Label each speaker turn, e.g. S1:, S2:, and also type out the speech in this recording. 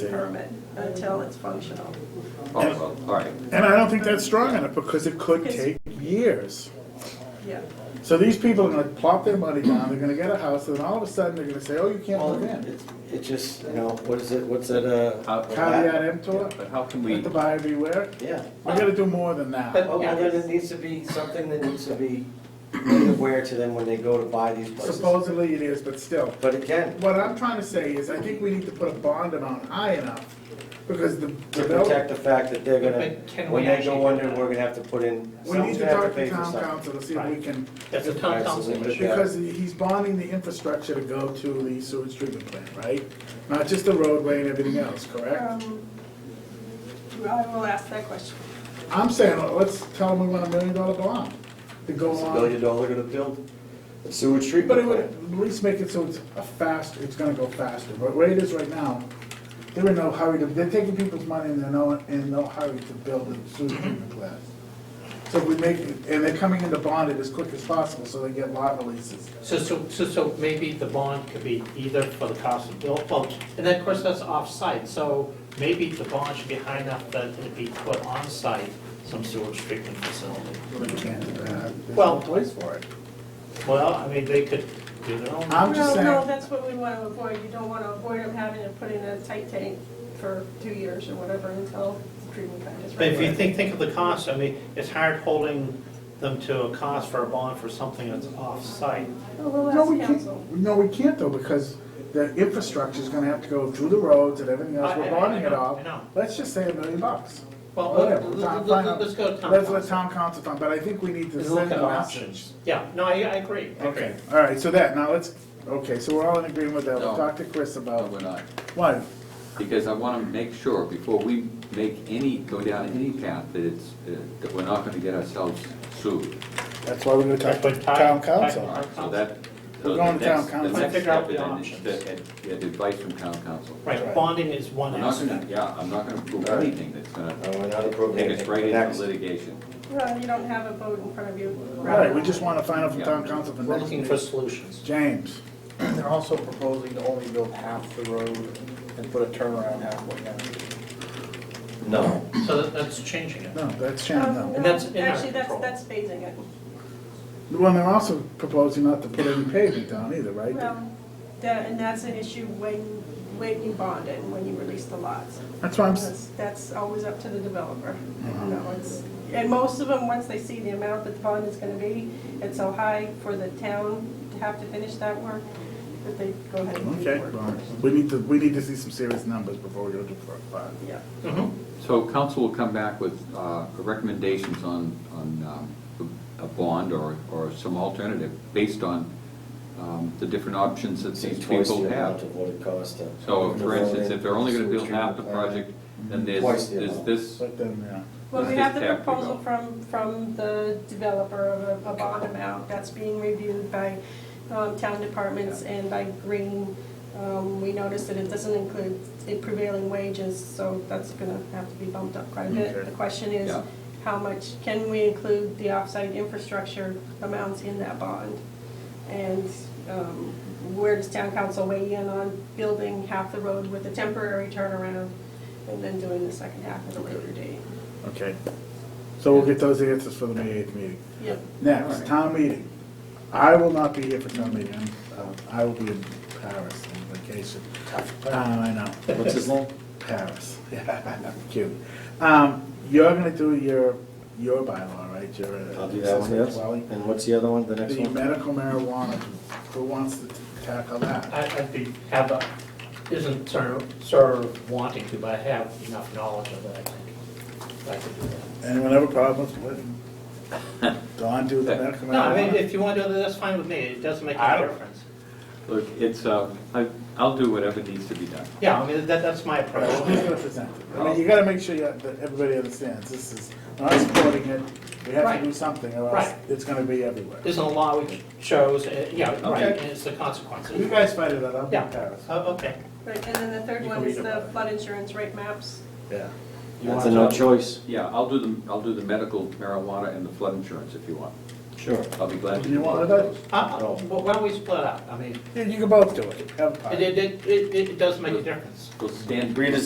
S1: permit until it's functional.
S2: Oh, well, all right.
S3: And I don't think that's strong enough because it could take years.
S1: Yeah,
S3: So these people are gonna plop their money down, they're gonna get a house, and all of a sudden they're gonna say, oh, you can't
S4: Well,
S3: live in.
S4: it's- It just, you know, what is it, what's that, uh?
S2: How-
S3: Caveat emptor,
S2: But how can we,
S3: let the buyer beware.
S4: Yeah.
S3: We gotta do more than
S4: But,
S3: that.
S4: well, then it needs to be something that needs to be made aware to them when they go to buy these places.
S3: Supposedly it is, but still.
S4: But again,
S3: What I'm trying to say is, I think we need to put a bond amount high enough, because the
S4: to
S3: developer,
S4: protect the fact that they're
S5: But
S4: gonna,
S5: can
S4: when
S5: we
S4: they
S5: actually
S4: go
S5: do
S4: under,
S5: that?
S4: we're gonna have to put in,
S3: we need
S4: someone's
S3: to
S4: gonna have
S3: talk
S4: to
S3: to
S4: pay for
S3: town
S4: something.
S3: council to see if we can,
S5: That's a town council
S4: Absolutely.
S5: issue.
S3: because he's bonding the infrastructure to go to the sewage treatment plant, right? Not just the roadway and everything else, correct?
S1: um, I will ask that question.
S3: I'm saying, well, let's tell them we want a million dollar bond to go
S4: It's a
S3: on.
S4: billion dollar gonna build a sewage
S3: But
S4: treatment
S3: it would
S4: plant.
S3: at least make it so it's a faster, it's gonna go faster, but where it is right now, they're in no hurry to, they're taking people's money and they're no, in no hurry to build a sewer treatment plant. So if we make, it- and they're coming into bond it as quick as possible, so they get lot releases.
S5: So, so, so, so maybe the bond could be either for the cost of build, well, and then of course that's off-site, so maybe the bond should be high enough that it'd be put on-site, some sewage treatment facility.
S3: But we can't do that. There's no
S5: Well-
S3: place for it.
S5: Well, I mean, they could do their own.
S3: I'm just
S1: No, no,
S3: saying,
S1: that's what we want to avoid. You don't want to avoid them having to put in a tight tank for two years or whatever until the treatment plant is
S5: But if you
S1: ready.
S5: think, think of the cost, I mean, it's hard holding them to a cost for a bond for something that's off-site.
S1: Oh, We'll
S3: no, we
S1: ask council.
S3: can't, no, we can't though, because the infrastructure's gonna have to go through the roads and everything else,
S5: I- I-
S3: we're
S5: I
S3: bonding it
S5: know,
S3: all.
S5: I know.
S3: Let's just say a million bucks.
S5: Well,
S3: Whatever,
S5: let-
S3: we'll
S5: let-
S3: talk-
S5: let-
S3: find out.
S5: let's go to town
S3: Let's let
S5: council.
S3: town council talk, but I think we need to
S5: Let's look
S3: send
S5: at
S3: a message.
S5: options. Yeah, no, I, I agree, I agree.
S3: Okay, all right, so that, now let's, okay, so we're all in agreement with that, we'll
S2: No.
S3: talk to Chris
S4: Oh.
S2: no,
S3: about,
S2: we're not.
S3: why?
S2: Because I want to make sure, before we make any, go down any path, that it's, uh, that we're not going to get ourselves sued.
S3: That's why we're gonna talk to town council.
S2: All right, So that. so
S3: We're going
S2: the
S3: to town
S2: next-
S3: council.
S2: The next
S5: Figure out
S2: step is
S5: the
S2: then
S5: options.
S2: to get- Get advice from town council.
S5: Right, bonding is one
S2: I'm not
S5: aspect.
S2: going to, yeah, I'm not going to prove
S4: All right.
S2: anything that's going
S4: No,
S2: to
S4: we're not approving
S2: take us
S4: it.
S2: right
S4: Next.
S2: into litigation.
S1: Well, you don't have a boat in front of you.
S3: All right, we just wanna find out from town
S2: Yeah.
S3: council for
S5: We're
S3: next
S5: looking for
S3: meeting.
S5: solutions.
S3: James,
S6: They're also proposing to only build half the road and put a turnaround halfway down.
S4: No,
S5: So that- that's changing it.
S3: no, that's Shannon,
S1: Um,
S3: no.
S5: And
S1: no,
S5: that's in our
S1: Actually, that's,
S5: control.
S1: that's phasing it.
S3: Well, they're also proposing not to put any pavement down either, right?
S1: Well, Um, that, and that's an issue when, when you bond it and when you release the lots.
S3: That's Uh-huh. why I'm, s-
S1: That's, that's always up to the developer. No, it's, and most of them, once they see the amount that the bond is gonna be, it's so high for the town to have to finish that work, that they go ahead and do
S3: okay,
S1: the work.
S3: well, we need to, we need to see some serious numbers before we go to part five.
S1: Yeah,
S5: Mhm.
S2: So council will come back with uh, recommendations on, on um, a bond or, or some alternative based on um, the different options that
S4: it's like
S2: these
S4: twice the
S2: people
S4: amount
S2: have.
S4: of what it costs to.
S2: So for instance, if they're only gonna
S4: Sewage
S2: build half the
S4: treatment plant.
S2: project, then there's,
S4: Twice the
S2: there's
S4: amount.
S2: this,
S3: But then, yeah.
S1: well, we
S2: Let's
S1: have
S2: just
S1: the
S2: have to go.
S1: proposal from, from the developer of a, a bond amount that's being reviewed by, um, town departments and by Green. Um, we noticed that it doesn't include the prevailing wages, so that's gonna have to be bumped up quite a bit.
S3: Okay.
S1: The question is,
S2: Yeah.
S1: how much, can we include the offsite infrastructure amounts in that bond? And um, where does town council weigh in on building half the road with a temporary turnaround and then doing the second half at a later date?
S3: Okay. So we'll get those answers for the May eighth meeting.
S1: Yep.
S3: Next, town meeting. I will not be here for town meeting. I'm, uh, I will be in Paris on vacation. Uh, I know.
S4: What's his name?
S3: Paris. Yeah, cute. Um, you're gonna do your, your bylaw, right? Your, uh,
S4: I'll do that one, yes.
S3: Wally?
S4: And what's the other one, the next
S3: The
S4: one?
S3: medical marijuana, who wants to tackle that?
S5: I- I'd be, have a, isn't sort of- sort of wanting to, but I have enough knowledge of it, I think. I could do that.
S3: Anyone have a problem with letting Don do the medical marijuana?
S5: No, I mean, if you want to do that, that's fine with me, it doesn't make
S3: I
S5: any
S3: don't-
S5: difference.
S2: look, it's, uh, I- I'll do whatever needs to be done.
S5: Yeah, I mean, that, that's my
S3: Right, well, who's
S5: approach.
S3: gonna present it? I mean, you gotta make sure you- that everybody understands, this is, we're not supporting it, we have to do
S5: Right.
S3: something, or else
S5: Right.
S3: it's gonna be everywhere.
S5: There's a law which shows, uh, yeah, right,
S3: Okay. Uh,
S5: and it's the
S3: You
S5: consequences.
S3: guys fight it out, I'll be
S5: Yeah.
S3: in Paris.
S5: Oh, okay.
S1: Right, and then the third
S3: You can
S1: one is
S3: read about
S1: the
S3: it.
S1: flood insurance rate maps.
S3: Yeah.
S4: That's a no choice.
S2: Yeah, I'll do the, I'll do the medical marijuana and the flood insurance if you want.
S4: Sure.
S2: I'll be glad to.
S3: You
S2: do
S3: want
S2: both
S3: that?
S2: those.
S5: Uh, uh, well, Why don't we split up? I mean,
S3: Yeah, you can both do it, have a
S5: it,
S3: party.
S5: it, it, it- it does make a difference.
S2: We'll stand.
S4: Rita,